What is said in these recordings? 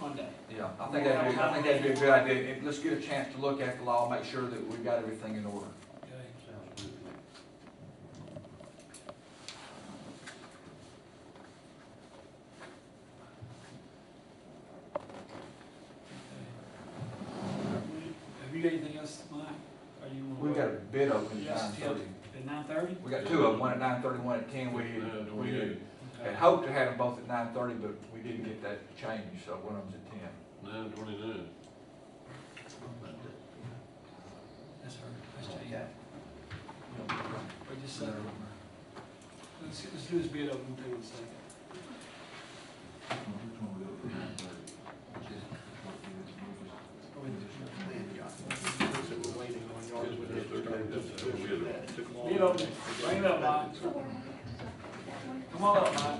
Monday. Yeah, I think that'd be, I think that'd be a good idea, and let's get a chance to look at the law, make sure that we've got everything in order. Okay. Sounds good. Have you got anything else, Mike? Or you wanna We've got a wait? bid open at nine Yes, till thirty. At nine thirty? We got two of them, one at nine thirty, one at ten, we, we had- had hoped to have them both at nine thirty, but we didn't get that changed, so one of them's at ten. Nine twenty-nine. That's her, that's Jane. Wait just a second. Let's, let's do this bid open thing in a second. Oh, wait. Bid open, bring it up, Mike. Come on up, Mike.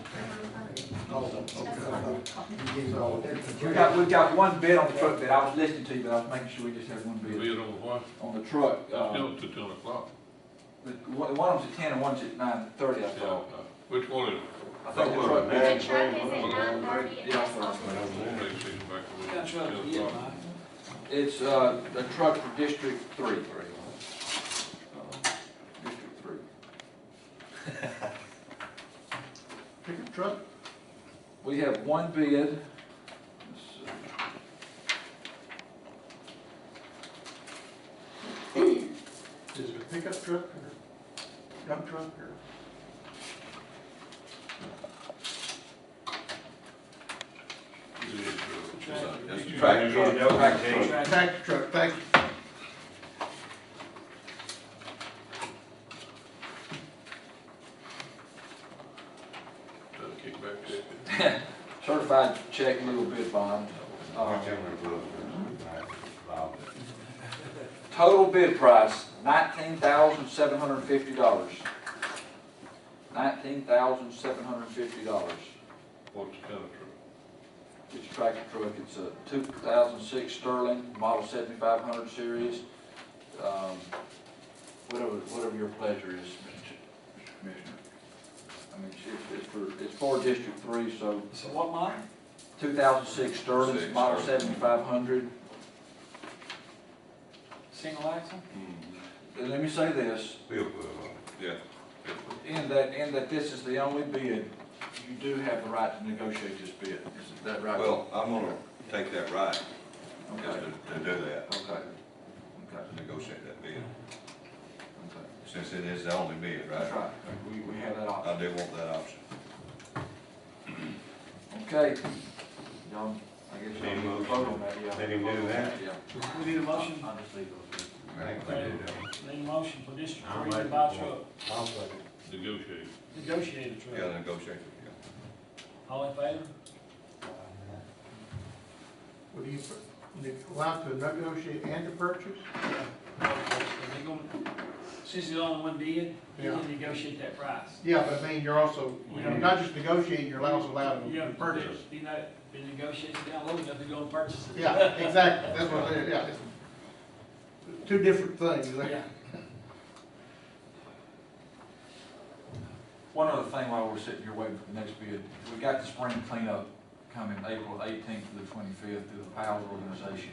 We got, we've got one bid on the truck bid, I was listening to you, but I was making sure we just had one bid Bid on what? on the truck, uh, Still to ten o'clock. the- one one of them's at ten and one's at nine thirty, I Yeah. thought. Which one is? I think the truck The bid. truck is at nine thirty and Yeah, that's that's what I was I all. don't know, they see back We when got it's you up 10 here, o'clock. Mike. It's, uh, a truck for District Three. Uh, District Three. Pickup truck? We have one bid. Let's see. Is it a pickup truck or dump truck or? It's, uh, it's a- Tractor. Tractor. Right. Tractor truck, thank you. Trying to kick back there. Certified check, little bid bond. Uh, Total bid price, nineteen thousand seven hundred and fifty dollars. Nineteen thousand seven hundred and fifty dollars. What's the kind of truck? It's a tractor truck, it's a two thousand six Sterling, model seventy-five hundred series. Um, Whatever, whatever your pleasure is, Mr. Ch- Mr. Commissioner. I mean, it's- it's for, it's for District Three, so So what, Mike? 2006 Sterling, Six, model Sterling. 7500. Single axle? And Let me say this, yeah. in that, in that this is the only bid, you do have the right to negotiate this bid. Is that right? Well, I'm gonna take that right, just Okay, to, okay, to do that, okay, to negotiate that bid, okay. since it is the only bid, That's right? Uh, right, we, we have that option. I do want that option. Okay. Y'all, I guess y'all Any need to motion? vote on that, yeah. Let him do that. Yeah. We need a motion, I'll just leave those. bids. need a motion for District I'll Three to make buy the truck, point. I'll second. Negotiate. negotiate a truck. Yeah, negotiate, yeah. All in favor? Would you allow to negotiate and to purchase? They gonna- Since it's only one bid, you Yeah. can negotiate that price. Yeah, but I mean, you're also, you're not just negotiating, you're also allowed You to have purchase. You know, they negotiate it down low enough to go and purchase it. Yeah, exactly, that's what, I- yeah. it's Two different things there. Yeah. One other thing while we're sitting here waiting for the next bid, we got the spring cleanup coming April eighteenth to the twenty-fifth through the POWs organization.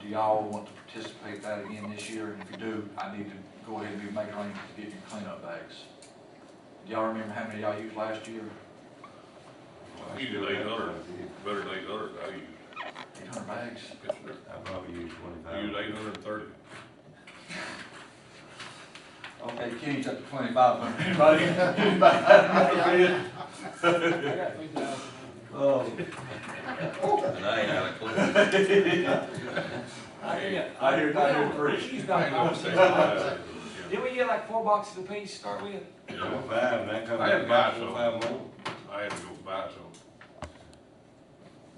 Do y'all want to participate in that again this year? And if you do, I need to go ahead and make arrangements to get your cleanup bags. Do y'all remember how many y'all used last year? Even eight hundred, better than eight hundred, I use. Eight hundred bags? Yes, sir. I probably use twenty-five. I use eight hundred and thirty. Okay, Kenny's up to twenty-five hundred. I got three thousand. Oh, And I ain't out of clue. I hear I hear- I hear three. He's I ain't gonna not- say five. Didn't we get like four boxes apiece to start with? Yeah. Twenty-five, and that comes. I had to buy some. Five more. I had to go buy some.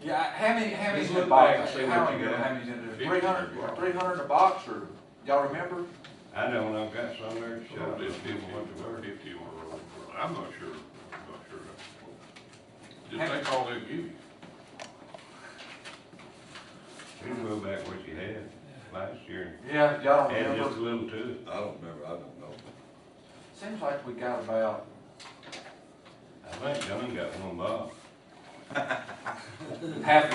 Yeah, how many, how many Just in the look back box? and see I don't what you remember got. How many's in there? Fifty. Three hundred, three hundred in a box, or, y'all remember? I don't know, I've got some there, shut up. It's fifty, fifty or, or- I'm not sure, I'm not sure. Just take all they give you. You can go back what you had last year, Yeah, y'all don't add remember? just a little to it. I don't remember, I don't know. Seems like we got about, I think John got one box. half